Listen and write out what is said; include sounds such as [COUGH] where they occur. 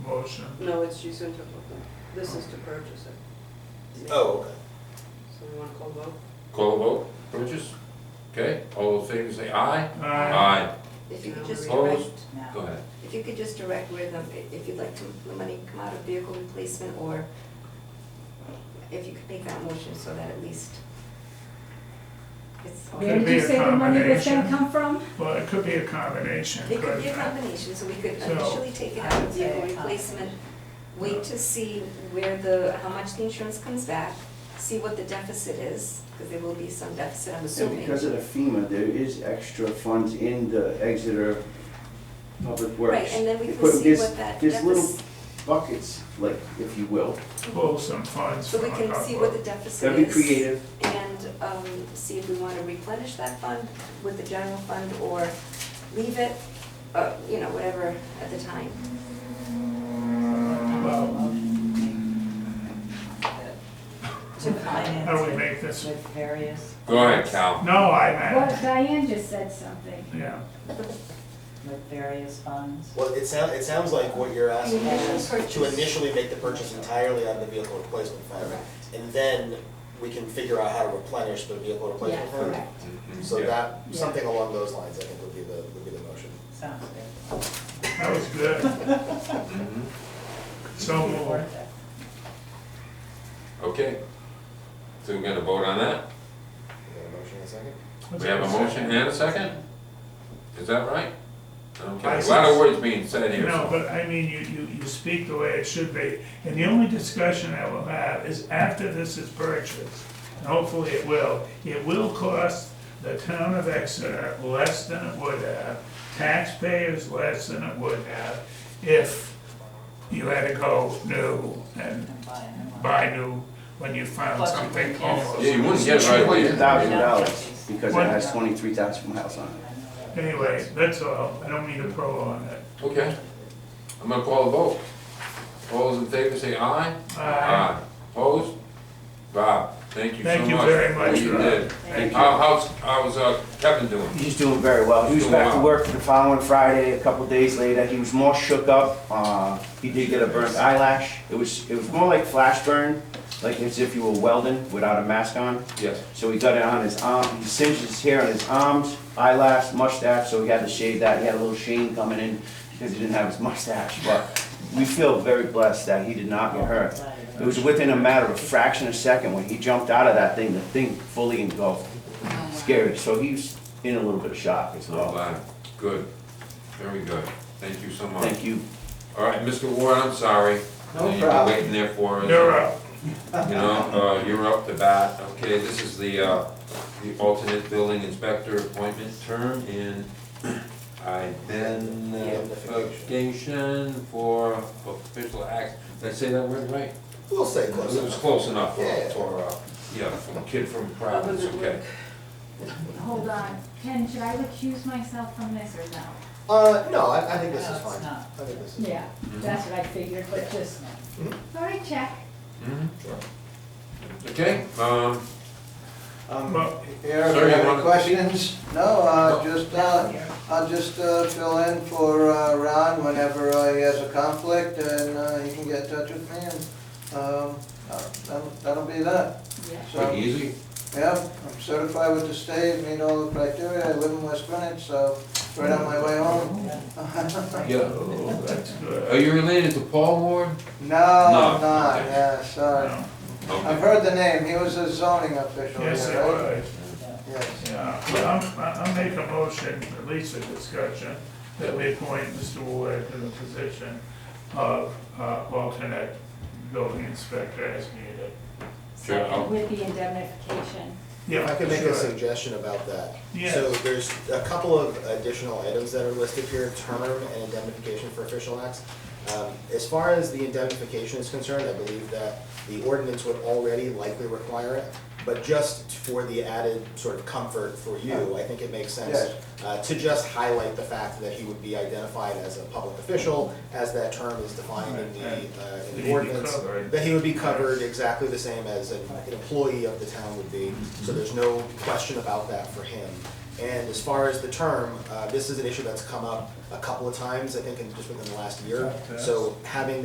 motion? No, it's, she's going to, this is to purchase it. Oh, okay. So we want to call vote? Call a vote, purchase? Okay, all those favors say aye? Aye. If you could just direct, Opposed? Go ahead. if you could just direct where the, if you'd like to, the money come out of vehicle replacement, or if you could make that motion so that at least it's, Okay. Where did you be a say the money was combination. gonna come from? Well, it could be a combination, it could couldn't be a it? combination, so we could So- initially take it out of vehicle replacement, wait to see where the, how much the insurance comes back, see what the deficit is, because there will be some deficit, I'm And assuming. because of the FEMA, there is extra funds in the Exeter Public Works. Right, and then we They can put- see there's- what that There's little deficit- buckets, like, if you will. Pull some funds So from we a can see what the couple. deficit That'd is. be creative. and um, see if we want to replenish that fund with the general fund or leave it, uh, you know, whatever at the time. Well, To finance how do we make this? with various, Go ahead, Cal. No, I Well, meant, Diane just said something. yeah, with various funds. Well, it sounds, it sounds like what you're asking Initial is to purchase. initially make the purchase entirely out of the vehicle replacement fund. Correct. And then we can figure out how to replenish the vehicle replacement Yeah, fund. correct. Mhm, So yeah. that, Yeah. something along those lines, I think would be the, would be the motion. Sounds good. that was good, Mhm. so moved. Worth it. Okay. So we got a vote on that? We got a motion in a second? We have a motion and a second? Is that right? Okay, a lot License. of words being said here. No, so- but I mean, you, you, you speak the way it should be, and the only discussion I will have is after this is purchased, and hopefully it will, it will cost the town of Exeter less than it would have, taxpayers less than it would have, if you had to go new and And buy a new one. buy new when you found Plus you something wouldn't get- almost. Yeah, you wouldn't get right away. Two thousand dollars, Yeah. because it What? has twenty-three thousand miles on it. I know that. Anyway, that's all, I don't mean to prolong it. Okay, I'm gonna call a vote. All those in favor say aye? Aye. Ah, Opposed? Bob, thank you so much. Thank you very What much, you Rob. did. Thank How, how's, how's uh, Kevin doing? He's doing very well. He was Doing back to well. work for the following Friday, a couple days later. He was more shook up. Uh, he did get a burnt eyelash. It was, it was more like flash burn, like as if you were welding without a mask on. Yes. So he got it on his arm, he singed his hair on his arms, eyelash, mustache, so he had to shave that. He had a little sheen coming in because he didn't have his [LAUGHS] mustache, but we feel very blessed that he did not get hurt. It was within a matter of a fraction of a second when he jumped out of that thing, the thing fully engulfed. Scary, so he's in a little bit of shock as I'm well. glad. Good, very good. Thank you so much. Thank you. All right, Mr. Ward, I'm sorry. No You've been problem. waiting there for us. You're up. You know, uh, you're up to bat. Okay, this is the, uh, the alternate building inspector appointment term in identification uh, for official act. Did I say that word right? We'll say It close was enough. close enough for, Yeah. for, uh, yeah, from kid from Providence, okay. Hold on, Ken, should I recuse myself from this or no? Uh, no, I, I think this No, is it's fine. not. I think this is. Yeah, that's what I figured, but just, All right, check. Mhm. Okay, um, Um, Well, Eric, Sir, you you have wanna- any questions? No, uh, No. just, uh, I'll just, uh, fill in for, uh, Ron whenever uh, he has a conflict and, uh, he can get in touch with me and, um, uh, that'll, that'll be that. yeah. pretty So, easy. yeah, I'm certified with the state, meet all the criteria, I live in West Greenwich, so it's right on my way home. [LAUGHS] Yeah. Oh, that's Are good. you related to Paul Ward? No, I'm No, not, okay. yeah, sorry. No. I've Okay. heard the name, he was a zoning official, Yes, it yeah, right? was. Yes. Yeah, well, I'll, I'll make a motion, at least a discussion, that we appoint Mr. Ward to the position of uh, alternate building inspector as needed. Sure, I'll- With the indemnification. Yeah, I can make sure. a suggestion about that. Yeah. So there's a couple of additional items that are listed here, term and indemnification for official acts. Um, As far as the indemnification is concerned, I believe that the ordinance would already likely require it, but just for the added sort of comfort for you, I think it makes sense Yes. uh, to just highlight the fact that he would be identified as a public official, as that term is defined in the, Right, uh, That in he'd the be ordinance covered. that he would be covered exactly the same as an an employee of the town would be, so there's no question about that for him. And as far as the term, uh, this is an issue that's come up a couple of times, I think, in just within the last year. So having